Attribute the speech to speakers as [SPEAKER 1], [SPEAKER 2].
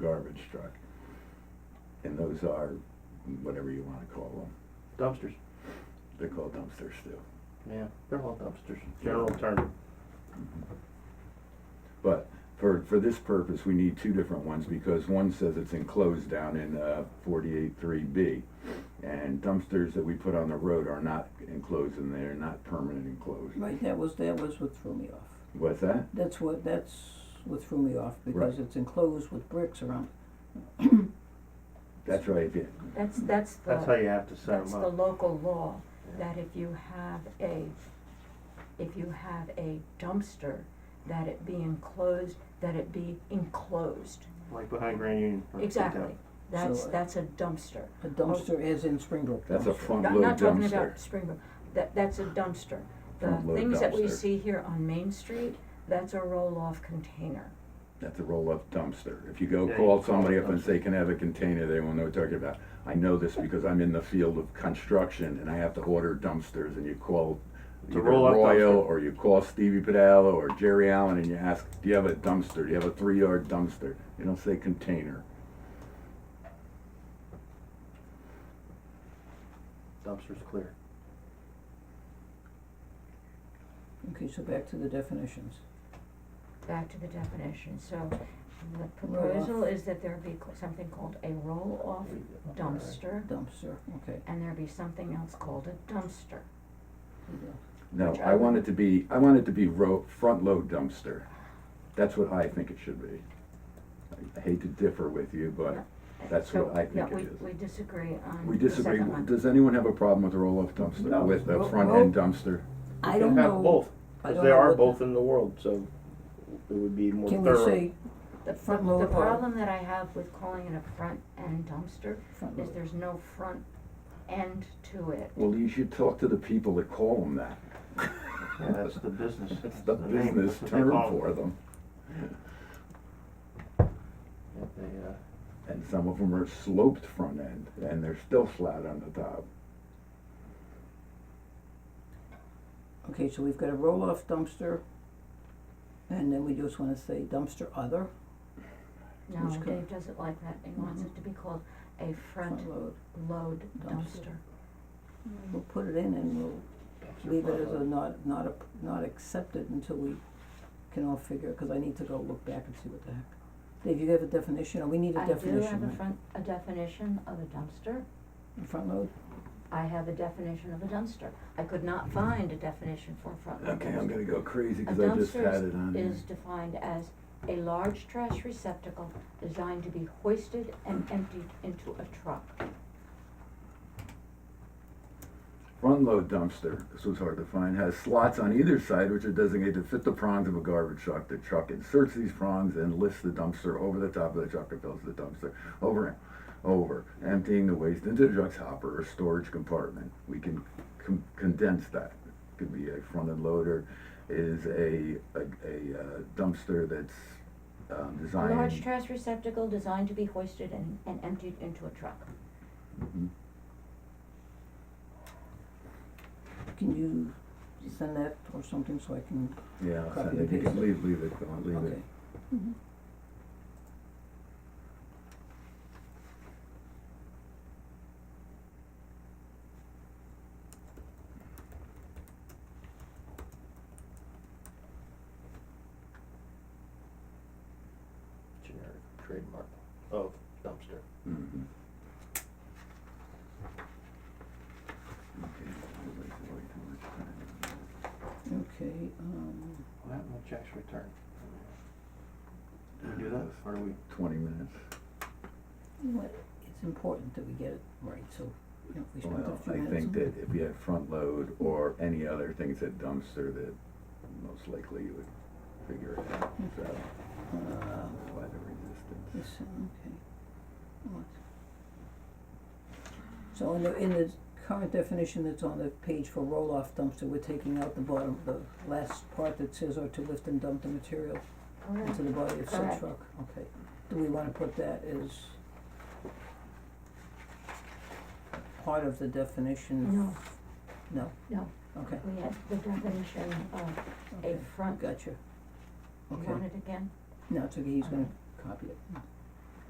[SPEAKER 1] garbage truck. And those are, whatever you wanna call them,
[SPEAKER 2] Dumpsters,
[SPEAKER 1] they're called dumpsters too.
[SPEAKER 2] yeah, they're all dumpsters,
[SPEAKER 1] Yeah.
[SPEAKER 2] general term.
[SPEAKER 1] But for, for this purpose, we need two different ones, because one says it's enclosed down in uh, forty-eight three B. And dumpsters that we put on the road are not enclosed and they're not permanent enclosed.
[SPEAKER 3] Right, that was, that was what threw me off.
[SPEAKER 1] What's that?
[SPEAKER 3] That's what, that's what threw me off, because
[SPEAKER 1] Right.
[SPEAKER 3] it's enclosed with bricks around.
[SPEAKER 1] That's right, yeah.
[SPEAKER 4] That's, that's
[SPEAKER 2] That's
[SPEAKER 3] Uh,
[SPEAKER 2] how
[SPEAKER 4] the,
[SPEAKER 2] you have to set
[SPEAKER 4] that's
[SPEAKER 2] them
[SPEAKER 4] the
[SPEAKER 2] up.
[SPEAKER 4] local law,
[SPEAKER 2] Yeah.
[SPEAKER 4] that if you have a, if you have a dumpster, that it be enclosed, that it be enclosed.
[SPEAKER 2] Like behind Grand Union. like the
[SPEAKER 4] Exactly.
[SPEAKER 2] dump.
[SPEAKER 4] That's,
[SPEAKER 3] So, uh,
[SPEAKER 4] that's a dumpster.
[SPEAKER 3] A dumpster is in Springbrook dumpster.
[SPEAKER 1] Oh. That's a front
[SPEAKER 4] Not,
[SPEAKER 1] load
[SPEAKER 4] not talking
[SPEAKER 1] dumpster.
[SPEAKER 4] about Springbrook, that, that's a dumpster. The
[SPEAKER 1] Front load
[SPEAKER 4] things that we
[SPEAKER 1] dumpster.
[SPEAKER 4] see here on Main Street, that's a roll-off container.
[SPEAKER 1] That's a roll-up dumpster. If you go
[SPEAKER 2] Yeah, you
[SPEAKER 1] call
[SPEAKER 2] can call
[SPEAKER 1] somebody
[SPEAKER 2] it
[SPEAKER 1] up and
[SPEAKER 2] dumpster.
[SPEAKER 1] say, can I have a container, they won't know what you're talking about. I know this because I'm in the field of construction and I have to order dumpsters and you call
[SPEAKER 2] It's a
[SPEAKER 1] either
[SPEAKER 2] roll-up
[SPEAKER 1] Royal
[SPEAKER 2] dumpster.
[SPEAKER 1] or you call Stevie Padala or Jerry Allen and you ask, do you have a dumpster? Do you have a three-yard dumpster? You don't say container.
[SPEAKER 2] Dumpster's clear.
[SPEAKER 3] Okay, so back to the definitions.
[SPEAKER 4] Back to the definition, so the proposal
[SPEAKER 3] Roll-off.
[SPEAKER 4] is that there be cl- something called a roll-off dumpster,
[SPEAKER 3] Dumpster, okay.
[SPEAKER 4] and there be something else called a dumpster.
[SPEAKER 3] here we go.
[SPEAKER 1] No,
[SPEAKER 4] Which I
[SPEAKER 1] I want
[SPEAKER 4] would-
[SPEAKER 1] it to be, I want it to be ro- front-load dumpster. That's what I think it should be. I hate to differ with you, but That's
[SPEAKER 4] So,
[SPEAKER 1] what I think
[SPEAKER 4] yeah,
[SPEAKER 1] it
[SPEAKER 4] we-
[SPEAKER 1] is.
[SPEAKER 4] we disagree on
[SPEAKER 1] we
[SPEAKER 4] the
[SPEAKER 1] disagree.
[SPEAKER 4] second one.
[SPEAKER 1] Does anyone have a problem with a roll-off dumpster,
[SPEAKER 2] No.
[SPEAKER 1] with a
[SPEAKER 3] Ro-
[SPEAKER 1] front-end dumpster?
[SPEAKER 3] I
[SPEAKER 2] You
[SPEAKER 3] don't
[SPEAKER 2] can have
[SPEAKER 3] know,
[SPEAKER 2] both,
[SPEAKER 3] I
[SPEAKER 2] because
[SPEAKER 3] don't
[SPEAKER 2] they
[SPEAKER 3] know
[SPEAKER 2] are
[SPEAKER 3] what-
[SPEAKER 2] both in the world, so it would be more
[SPEAKER 3] can we
[SPEAKER 2] thorough.
[SPEAKER 3] say
[SPEAKER 4] The,
[SPEAKER 3] Front
[SPEAKER 4] the- the
[SPEAKER 3] load or-
[SPEAKER 4] problem that I have with calling it a front end dumpster
[SPEAKER 3] front
[SPEAKER 1] Uh-huh.
[SPEAKER 4] is
[SPEAKER 3] load?
[SPEAKER 4] there's no front end to it.
[SPEAKER 1] Well, you should talk to the people that call them that.
[SPEAKER 2] Yeah, that's the business.
[SPEAKER 1] It's
[SPEAKER 2] that's
[SPEAKER 1] the
[SPEAKER 2] name,
[SPEAKER 1] business
[SPEAKER 2] that's what they
[SPEAKER 1] term
[SPEAKER 2] call it.
[SPEAKER 1] for them.
[SPEAKER 2] Yeah, they, uh,
[SPEAKER 1] And some of them are sloped front end and they're still flat on the top.
[SPEAKER 3] Okay, so we've got a roll-off dumpster, and then we just wanna say dumpster other,
[SPEAKER 4] No,
[SPEAKER 3] Which co-
[SPEAKER 4] Dave doesn't like that. He wants
[SPEAKER 1] Mm-hmm.
[SPEAKER 4] it to be called a front
[SPEAKER 3] front load.
[SPEAKER 4] load
[SPEAKER 3] Dumpster.
[SPEAKER 4] dumpster.
[SPEAKER 3] We'll put it in and we'll
[SPEAKER 2] dumpster
[SPEAKER 3] leave it
[SPEAKER 2] front
[SPEAKER 3] as a
[SPEAKER 2] load.
[SPEAKER 3] not, not, a- not accepted until we can all figure, cause I need to go look back and see what the heck. Dave, you have a definition, or we need a
[SPEAKER 4] I do have
[SPEAKER 3] definition,
[SPEAKER 4] a
[SPEAKER 3] right?
[SPEAKER 4] front, a definition of a dumpster.
[SPEAKER 3] A front load?
[SPEAKER 4] I have a definition of a dumpster. I could not find a definition for a front load
[SPEAKER 1] Okay, I'm
[SPEAKER 4] dumpster.
[SPEAKER 1] gonna go crazy
[SPEAKER 4] A
[SPEAKER 1] because I just had it on
[SPEAKER 4] dumpster
[SPEAKER 1] here.
[SPEAKER 4] is defined as a large trash receptacle designed to be hoisted and emptied into a truck.
[SPEAKER 1] Front load dumpster, this was hard to find, has slots on either side which are designated to fit the prongs of a garbage truck. The truck inserts these prongs and lifts the dumpster over the top of the truck and fills the dumpster over, over, emptying the waste into the truck's hopper or storage compartment. We can con- condense that. Could be a front end loader is a, a, a uh, dumpster that's um,
[SPEAKER 4] A large
[SPEAKER 1] designed.
[SPEAKER 4] trash receptacle designed to be hoisted and, and emptied into a truck.
[SPEAKER 1] Mhm.
[SPEAKER 3] Can you send that or something so I can,
[SPEAKER 1] Yeah, I'll
[SPEAKER 3] Copy
[SPEAKER 1] send it.
[SPEAKER 3] and
[SPEAKER 1] You can
[SPEAKER 3] paste it.
[SPEAKER 1] leave, leave it, Dawn, leave
[SPEAKER 3] okay,
[SPEAKER 1] it.
[SPEAKER 2] Generic trademark of dumpster.
[SPEAKER 1] Mhm. Okay, I'll wait till I do it.
[SPEAKER 3] okay, um,
[SPEAKER 2] What happened with checks returned? Do we do that, or do we?
[SPEAKER 1] Twenty minutes.
[SPEAKER 3] what, it's important that we get it right, so, you know, we spent
[SPEAKER 1] Well,
[SPEAKER 3] a few
[SPEAKER 1] I
[SPEAKER 3] minutes
[SPEAKER 1] think
[SPEAKER 3] on
[SPEAKER 1] that if you had front load or any other things that dumpster, that most likely you would figure it out,
[SPEAKER 3] Hmm.
[SPEAKER 1] so,
[SPEAKER 3] Uh,
[SPEAKER 1] that's why the resistance.
[SPEAKER 3] this, uh, okay, what? So in the, in the current definition that's on the page for roll-off dumpster, we're taking out the bottom, the last part that says or to lift and dump the material into the body of said
[SPEAKER 4] Correct.
[SPEAKER 3] truck, okay. Do we wanna put that as part of the definition?
[SPEAKER 4] No,
[SPEAKER 3] No?
[SPEAKER 4] No.
[SPEAKER 3] Okay,
[SPEAKER 4] we had the definition of a
[SPEAKER 3] okay,
[SPEAKER 4] front,
[SPEAKER 3] gotcha.
[SPEAKER 4] you
[SPEAKER 3] Okay,
[SPEAKER 4] want it again?
[SPEAKER 3] no, it's okay, he's gonna copy it.